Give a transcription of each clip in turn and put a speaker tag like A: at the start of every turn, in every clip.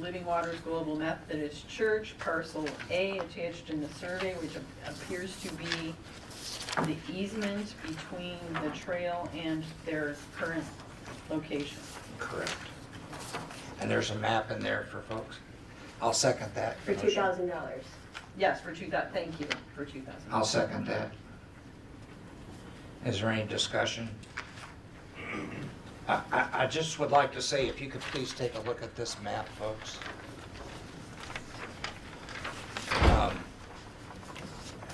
A: Living Waters Global Methodist Church, parcel A attached in the survey, which appears to be the easement between the trail and their current location.
B: Correct. And there's a map in there for folks. I'll second that.
C: For two thousand dollars.
A: Yes, for two thou, thank you, for two thousand.
B: I'll second that. Is there any discussion? I, I, I just would like to say, if you could please take a look at this map, folks. Um,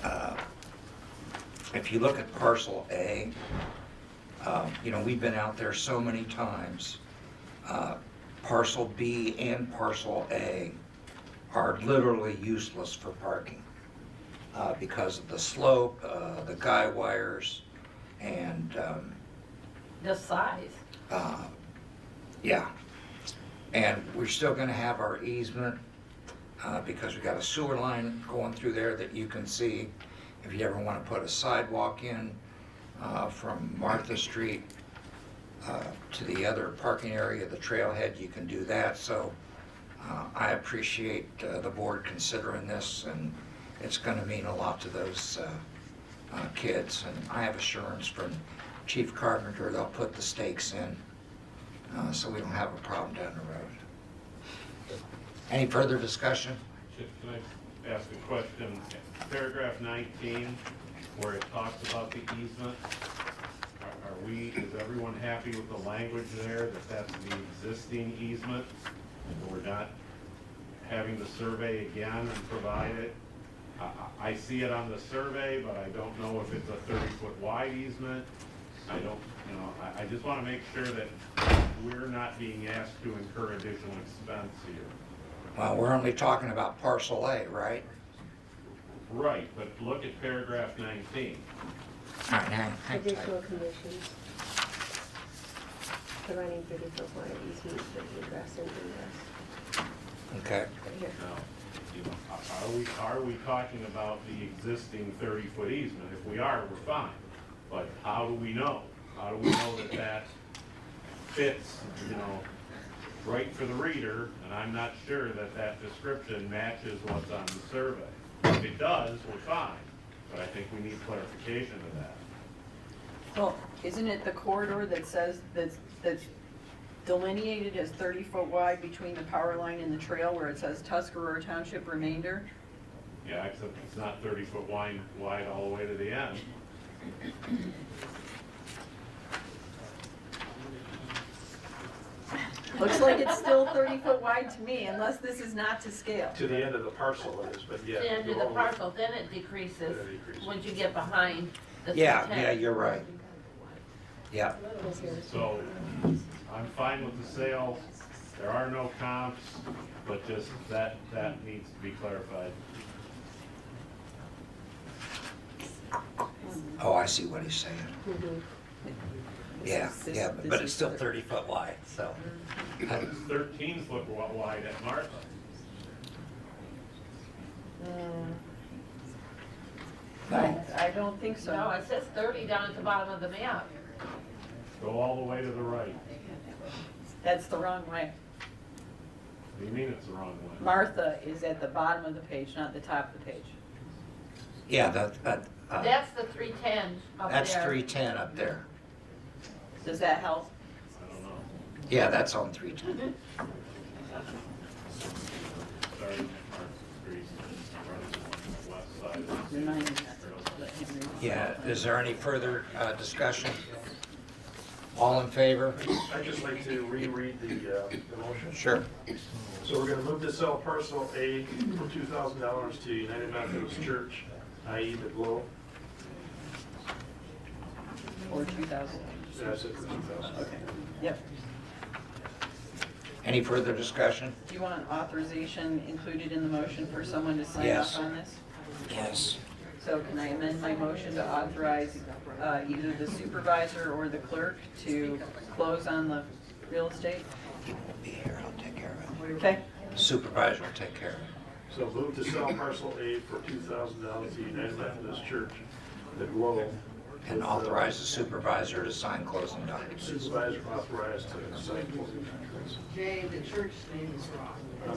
B: uh, If you look at parcel A, um, you know, we've been out there so many times. Uh, Parcel B and parcel A are literally useless for parking uh, because of the slope, uh, the guy wires, and, um,
A: The size.
B: uh, yeah. And we're still gonna have our easement, uh, because we got a sewer line going through there that you can see. If you ever wanna put a sidewalk in, uh, from Martha Street, uh, to the other parking area, the trailhead, you can do that, so, uh, I appreciate, uh, the board considering this, and it's gonna mean a lot to those, uh, uh, kids, and I have assurance from Chief Carpenter, they'll put the stakes in, uh, so we don't have a problem down the road. Any further discussion?
D: Just can I ask a question? Paragraph 19, where it talks about the easement, are- are we, is everyone happy with the language there, that that's the existing easement? And we're not having the survey again and provide it? I- I I see it on the survey, but I don't know if it's a 30-foot wide easement. I don't, you know, I- I just want to make sure that we're not being asked to incur additional expense here.
B: Well, we're only talking about parcel A, right?
D: Right, but look at paragraph 19.
B: All right, hang- hang tight.
C: Additional conditions. The running thirty foot water easement for egress and ingress.
B: Okay,
C: Right here.
D: Now, you know, are are we, are we talking about the existing 30-foot easement? If we are, we're fine. But how do we know? How do we know that that fits, you know, right for the reader? And I'm not sure that that description matches what's on the survey. If it does, we're fine, but I think we need clarification of that.
A: Well, isn't it the corridor that says, that's, that's delineated as thirty foot wide between the power line and the trail where it says Tuscarora Township remainder?
D: Yeah, except it's not 30-foot wide, wide all the way to the end.
A: Looks like it's still thirty foot wide to me, unless this is not to scale.
E: To the end of the parcel it is, but yeah.
F: to the end of the
E: you're all-
F: parcel, then it decreases
E: Then it decreases.
F: once you get behind the
B: yeah,
F: 310.
B: yeah, you're right. Yeah,
C: Yes, here.
D: So, I'm fine with the sale, there are no comps, but just that, that needs to be clarified.
B: oh, I see what he's saying.
C: Mhm.
B: Yeah,
A: Mm-hmm. This is-
B: yeah,
A: this
B: but
A: is
B: it's still
A: the-
B: 30 foot wide, so.
D: It's thirteen foot wa- wide at Martha.
B: No,
A: I don't think so.
F: No, it says thirty down at the bottom of the map.
D: Go all the way to the right.
A: That's the wrong way.
D: What do you mean it's the wrong way?
A: Martha is at the bottom of the page, not the top of the page.
B: yeah, that, that, uh,
F: That's the three ten up there.
B: that's 310 up there.
A: Does that help?
D: I don't know.
B: Yeah, that's on 310.
D: Sorry, Martha Street, Martha Street, west side.
A: Remind me that. Let him read.
B: Yeah, is there any further uh, discussion? All in favor?
E: I'd just like to reread the, uh, the motion.
B: Sure.
E: So we're gonna move to sell parcel A for two thousand dollars to United Methodist Church, i.e. the Glow.
A: Or two thousand.
E: That's it for two thousand.
A: Okay. Yep.
B: Any further discussion?
A: Do you want authorization included in the motion for someone to sign
B: Yes.
A: off on this?
B: Yes.
A: So can I amend my motion to authorize uh, either the supervisor or the clerk to close on the real estate?
B: He won't be here, I'll take care of
A: Okay?
B: it. Supervisor will take care of it.
E: So move to sell parcel A for two thousand dollars to United Methodist Church, the Glow.
B: And authorize the supervisor to sign closing documents.
E: Supervisor authorized to sign closing documents.
G: Jay, the church name is wrong.